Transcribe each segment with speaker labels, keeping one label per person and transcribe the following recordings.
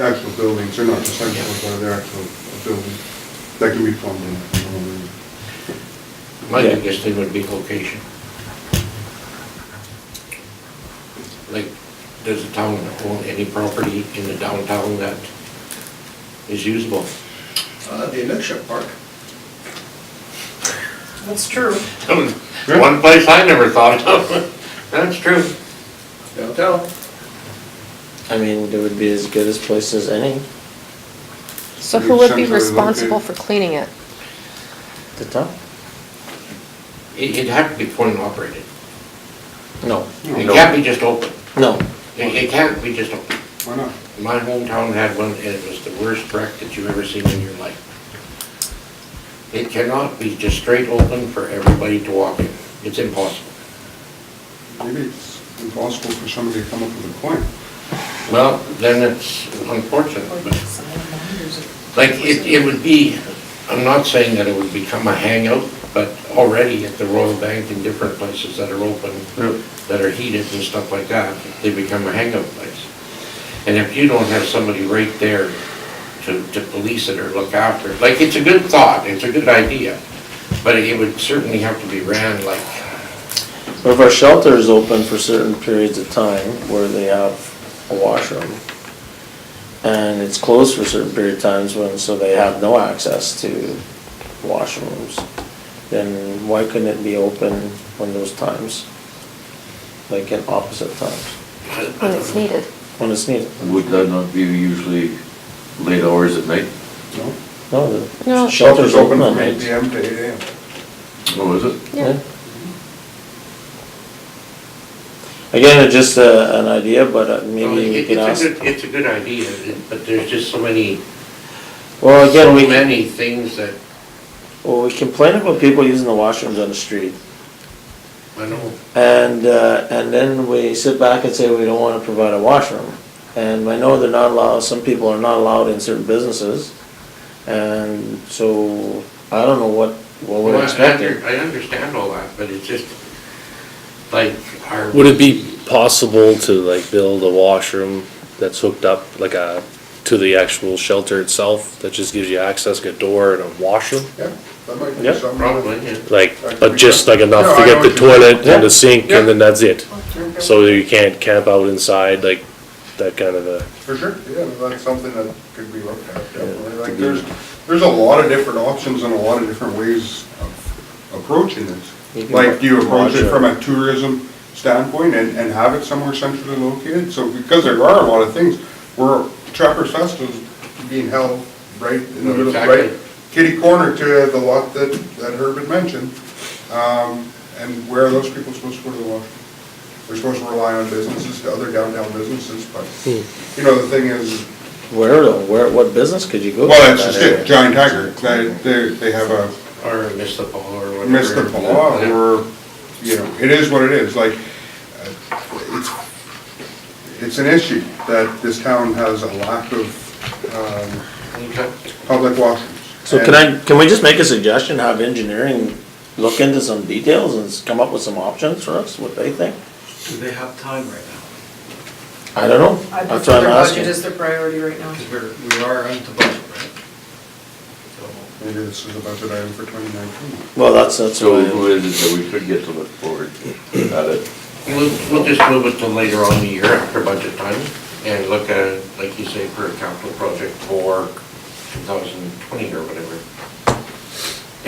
Speaker 1: actual buildings, they're not the same ones, but they're actual buildings that can be plumbed in.
Speaker 2: My biggest thing would be location. Like, does the town own any property in the downtown that is usable?
Speaker 3: Uh, the Inukshuk Park.
Speaker 4: That's true.
Speaker 2: One place I never thought of. That's true.
Speaker 3: downtown.
Speaker 5: I mean, it would be as good as place as any,
Speaker 6: So who would be
Speaker 1: Centrally
Speaker 6: responsible for
Speaker 1: located.
Speaker 6: cleaning it?
Speaker 5: the town.
Speaker 2: It- It'd have to be coin operated.
Speaker 5: Oh, No,
Speaker 2: It can't be just open.
Speaker 5: no,
Speaker 2: It it can't be just open.
Speaker 1: Why not?
Speaker 2: My hometown had one, and it was the worst wreck that you've ever seen in your life. It cannot be just straight open for everybody to walk in. It's impossible.
Speaker 1: Maybe it's impossible for somebody to come up with a coin.
Speaker 2: Well, then it's unfortunate,
Speaker 4: Like,
Speaker 2: but,
Speaker 4: some of the vendors are-
Speaker 2: like, it, it would be, I'm not saying that it would become a hangout, but already at the Royal Bank and different places that are open, that are heated and stuff like that, they become a hangout place. And if you don't have somebody right there to, to police it or look after, it, like, it's a good thought, it's a good idea, but it would certainly have to be ran like
Speaker 5: But if our shelter is open for certain periods of time where they have a washroom, and it's closed for certain period of times when, so they have no access to washrooms, then why couldn't it be open when those times? Like in opposite times,
Speaker 6: When it's needed.
Speaker 5: when it's needed?
Speaker 7: Would that not be usually late hours at night?
Speaker 1: No?
Speaker 5: No,
Speaker 6: No.
Speaker 5: the shelter's open at
Speaker 1: from
Speaker 5: night.
Speaker 1: 8 PM to eight AM.
Speaker 7: Oh, is it?
Speaker 6: Yeah.
Speaker 5: Again, it's just a, an idea, but uh,
Speaker 2: Well,
Speaker 5: maybe we
Speaker 2: it-
Speaker 5: can
Speaker 2: it's a
Speaker 5: ask,
Speaker 2: good- It's a good idea, but there's just so many,
Speaker 5: well,
Speaker 2: so
Speaker 5: again, we, can-
Speaker 2: many things that,
Speaker 5: well, we complain about people using the washrooms on the street.
Speaker 2: I know,
Speaker 5: And, uh, and then we sit back and say we don't wanna provide a washroom. And I know they're not allowed, some people are not allowed in certain businesses. And so, I don't know what, what
Speaker 2: Well,
Speaker 5: we're
Speaker 2: I
Speaker 5: expecting.
Speaker 2: under- I understand all that, but it's just, like, our.
Speaker 8: Would it be possible to like build a washroom that's hooked up like a, to the actual shelter itself that just gives you access, like a door and a washroom?
Speaker 1: Yeah, that might be
Speaker 5: Yeah,
Speaker 1: something.
Speaker 2: Probably, yeah.
Speaker 8: Like,
Speaker 1: That could
Speaker 8: but
Speaker 1: be
Speaker 8: just
Speaker 1: done.
Speaker 8: like enough
Speaker 1: No, I
Speaker 8: to
Speaker 1: know
Speaker 8: get the
Speaker 1: what you mean.
Speaker 8: toilet and
Speaker 5: Yeah.
Speaker 8: the sink
Speaker 1: Yeah.
Speaker 8: and then that's it?
Speaker 4: Okay.
Speaker 8: So you can't camp out inside, like that kind of a,
Speaker 1: For sure, yeah, that's something that could be looked at, definitely. Like, there's, there's a lot of different options and a lot of different ways of approaching
Speaker 5: You
Speaker 1: this.
Speaker 5: can
Speaker 1: Like, do you approach it
Speaker 5: lodge
Speaker 1: from
Speaker 5: a-
Speaker 1: a tourism standpoint and, and have it somewhere centrally located? So, because there are a lot of things, where Trappers Fest is being held right in the middle,
Speaker 2: Exactly.
Speaker 1: right kitty corner to the lot that, that Herb had mentioned. Um, and where are those people supposed to go to the washroom? They're supposed to rely on businesses, to other downtown businesses, but, you know, the thing is,
Speaker 5: Where, though? where, what business could you go to?
Speaker 1: well,
Speaker 5: in
Speaker 1: that's
Speaker 5: that
Speaker 1: just
Speaker 5: area?
Speaker 1: it, Giant Tiger, they, they, they have a
Speaker 2: Or miss the ball or whatever.
Speaker 1: Miss the Paw,
Speaker 2: Yeah.
Speaker 1: or, you know, it is what it is, like, uh, it's, it's an issue that this town has a lack of, um,
Speaker 2: Okay.
Speaker 1: public washrooms.
Speaker 5: So
Speaker 1: And-
Speaker 5: can I, can we just make a suggestion, have engineering look into some details and s- come up with some options for us, what they think?
Speaker 3: Do they have time right now?
Speaker 5: I don't know.
Speaker 4: I
Speaker 5: That's
Speaker 4: prefer
Speaker 5: what
Speaker 4: their
Speaker 5: I'm
Speaker 4: budget
Speaker 5: asking.
Speaker 4: is their priority right now.
Speaker 3: Because we're, we are into budget, right? So,
Speaker 1: Maybe this is a budget item for twenty nineteen.
Speaker 5: Well, that's, that's
Speaker 7: So
Speaker 5: what
Speaker 7: who
Speaker 5: I,
Speaker 7: is it that we could get to look forward at it?
Speaker 2: We'll, we'll just move it to later on in the year after budget time and look at, it, like you say, for a capital project for 2020 or whatever.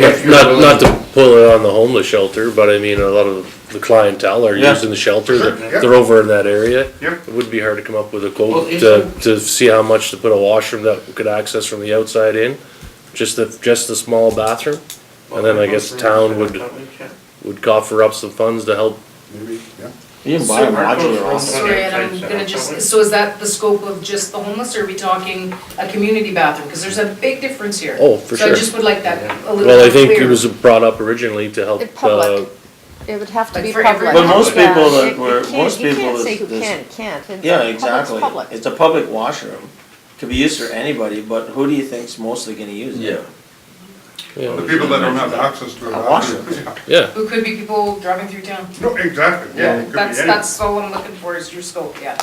Speaker 2: If you're
Speaker 8: not, not
Speaker 2: willing-
Speaker 8: to pull it on the homeless shelter, but I mean, a lot of the clientele are
Speaker 5: Yeah.
Speaker 8: using the shelter.
Speaker 1: Sure, yeah.
Speaker 8: They're they're over in that area.
Speaker 1: Yep.
Speaker 8: It would be hard to come up with a
Speaker 2: Well,
Speaker 8: quote to,
Speaker 2: isn't-
Speaker 8: to see how much to put a washroom that could access from the outside in. Just the, just the small bathroom and then I guess town would- would coffer up some funds to help
Speaker 1: Maybe, yeah.
Speaker 5: you can buy a
Speaker 2: So-
Speaker 5: modular
Speaker 2: Marco's
Speaker 5: office.
Speaker 4: Sorry, and I'm gonna just, so is that the scope of just the homeless, or are we talking a community bathroom? Because there's a big difference here.
Speaker 8: Oh, for
Speaker 4: So I
Speaker 8: sure.
Speaker 4: just would like that a little bit clearer.
Speaker 8: Well, I think it was brought up originally to help,
Speaker 6: It
Speaker 8: uh,
Speaker 6: public. It would have to
Speaker 4: Like
Speaker 6: be
Speaker 4: for
Speaker 6: public.
Speaker 4: everyone. But
Speaker 5: most
Speaker 6: Yeah.
Speaker 5: people that
Speaker 6: It- it
Speaker 5: were-
Speaker 6: can't-
Speaker 5: most people
Speaker 6: You can't say
Speaker 5: that-
Speaker 6: who
Speaker 5: this-
Speaker 6: can, can't. It-
Speaker 5: Yeah,
Speaker 6: public's
Speaker 5: exactly.
Speaker 6: public.
Speaker 5: It's a public washroom. Could be used for anybody, but who do you think's mostly gonna use it?
Speaker 1: The
Speaker 8: Oh, yeah,
Speaker 1: people that don't have access to a
Speaker 5: A
Speaker 1: bathroom. Yeah.
Speaker 8: yeah.
Speaker 4: Who could be people driving through town?
Speaker 1: No, exactly, yeah, it could be
Speaker 4: That's,
Speaker 1: anyone.
Speaker 4: that's all I'm looking for, is your scope, yeah.